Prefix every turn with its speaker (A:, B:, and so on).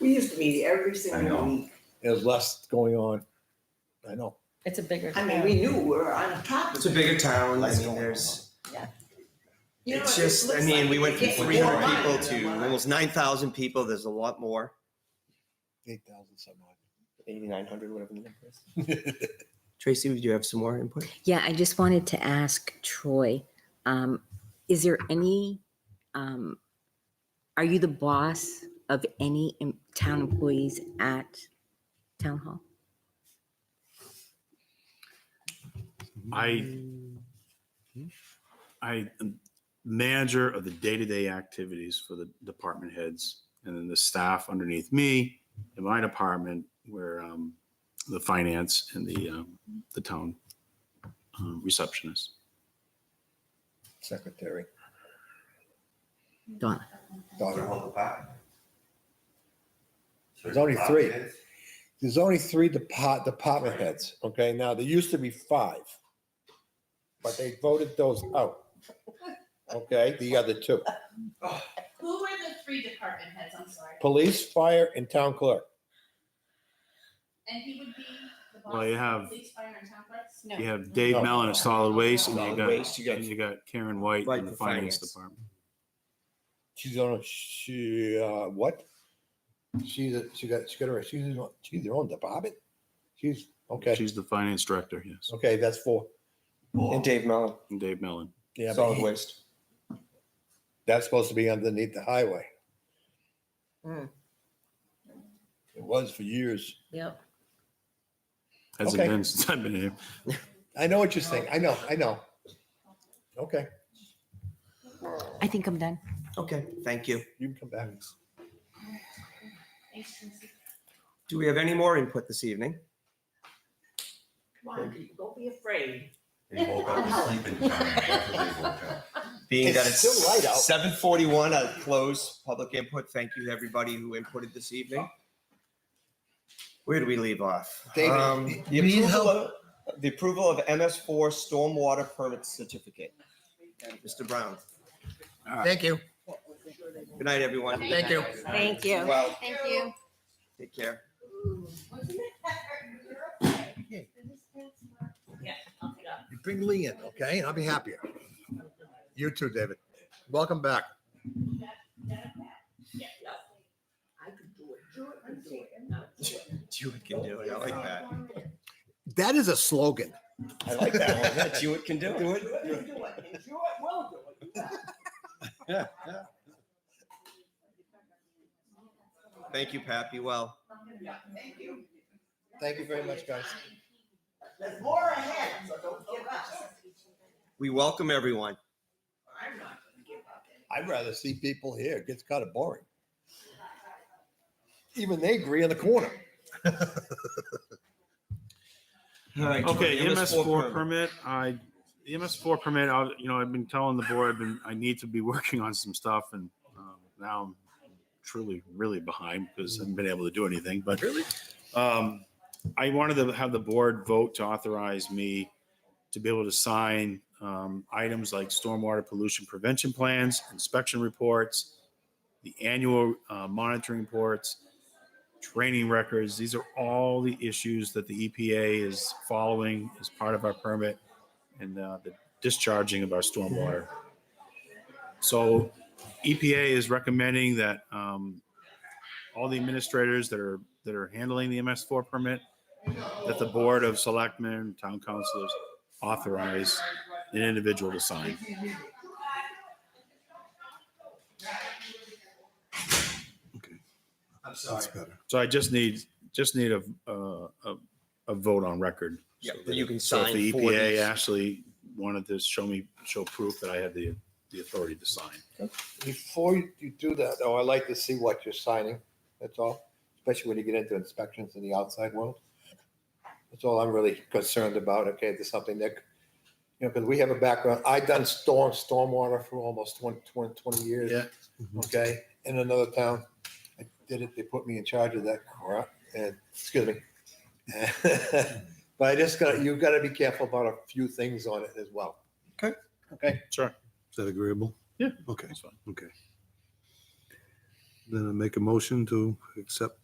A: We used to meet every single
B: know.
A: week.
C: There's less going on. I know.
D: It's a bigger.
A: I mean, we knew we were on top of
E: It's a
A: it.
E: bigger town, I
C: Less
E: mean,
C: going
E: there's,
A: You know,
E: it's
A: it
E: just, I
A: looks
E: mean,
A: like
E: we went from
A: you get
E: three hundred
A: more
E: people
A: miles
E: to
A: than what I-
E: almost nine thousand people, there's a lot more.
C: Eight thousand some odd.
E: Eighty-nine hundred, whatever the number is. Tracy, would you have some more input?
F: Yeah, I just wanted to ask Troy, um, is there any, um, are you the boss of any em- town employees at town hall?
G: I, I am manager of the day-to-day activities for the department heads and then the staff underneath me in my department where um, the finance and the, um, the town um, receptionist.
C: Secretary.
F: Donna?
C: daughter.
B: There's
C: only three. There's only three depart, department heads, okay? Now, there used to be five. But they voted those out. Okay, the other two,
H: Who were the three department heads? I'm sorry.
C: police, fire, and town clerk.
H: And he would be the boss.
G: Well, you
H: of
G: have-
H: Police, fire, and town clerks?
D: No.
G: You have Dave Mellon of Solid Waste and you
E: Oh. Solid
G: got,
E: Waste, you got-
G: and you got Karen White
E: Right,
G: in the
E: the
G: finance
E: finance.
G: department.
C: She's on, a- she, uh, what? She's, a- she got, she got her, she's, in- she's their own department? She's, okay,
G: She's the finance director, yes,
C: okay, that's four.
E: And Dave Mellon,
G: and Dave Mellon.
C: Yeah, but
E: solid
C: he-
E: waste.
C: That's supposed to be underneath the highway.
D: Hmm.
C: It was for years.
D: Yep.
G: Hasn't
C: Okay.
G: been since I've been here.
C: I know what you're saying. I know, I know. Okay,
F: I think I'm done.
E: Okay, thank you.
C: you can come back.
H: Thanks, Tracy.
E: Do we have any more input this evening?
A: Come on, people, don't be afraid.
B: They woke up a sleeping giant. That's what they woke up.
E: Being that
C: It's
E: it's
C: still light out.
E: seven forty-one, I close public input. Thank you to everybody who inputted this evening. Where do we leave off?
C: David,
E: Um,
C: you
E: The
C: need
E: approval of- the approval of MS four stormwater permit certificate. Mr. Brown,
I: Thank you.
E: good night, everyone.
I: Thank you.
D: Thank you.
E: Well,
H: Thank you.
E: take care.
C: You Bring Lee in, okay? And I'll be happier. You too, David. Welcome back.
A: I could do it. Do it, I could do it. and not do it.
E: Jewett can do it. I like that.
C: That is a slogan.
E: I like that one. Jewett can do
A: Do it, and do it, and do it, will do it.
E: it. Thank you, Pat. Be well.
A: Yeah, thank you.
C: Thank you very much, guys.
A: There's more ahead, so don't give up.
E: We welcome everyone.
A: I'm not gonna give up.
C: I'd rather see people here. It gets kind of boring. Even they agree on the corner.
E: All right,
G: Okay,
E: Jordan,
G: MS four permit, I, the MS four permit, I, you know, I've been telling the board, I've been, I need to be working on some stuff and um, now I'm truly, really behind because I haven't been able to do anything, but. Really? Um, I wanted to have the board vote to authorize me to be able to sign um, items like stormwater pollution prevention plans, inspection reports, the annual uh, monitoring reports, training records. These are all the issues that the EPA is following as part of our permit and uh, the discharging of our stormwater. So EPA is recommending that um, all the administrators that are, that are handling the MS4 permit, that the Board of Selectmen, Town Councilors authorize an individual to sign.
B: I'm sorry.
G: So I just need, just need a, uh, a, a vote on record.
E: Yeah,
G: So
E: that you can
G: So if
E: sign
G: the E
E: for
G: EPA
E: these.
G: actually wanted to show me, show proof that I had the, the authority to sign.
C: Before you you do that, though, I like to see what you're signing. That's all, especially when you get into inspections in the outside world. That's all I'm really concerned about. Okay, there's something that, you know, because we have a background. I done storm, stormwater for almost 20, 20 20 years.
G: Yeah.
C: Okay, in another town, I did it. They put me in charge of that crap. And excuse me. but I just got to you got to be careful about a few things on it as well.
G: Sure.
I: Is that agreeable?
G: Yeah.
I: Okay.
G: That's fine.
B: Then I make a motion to accept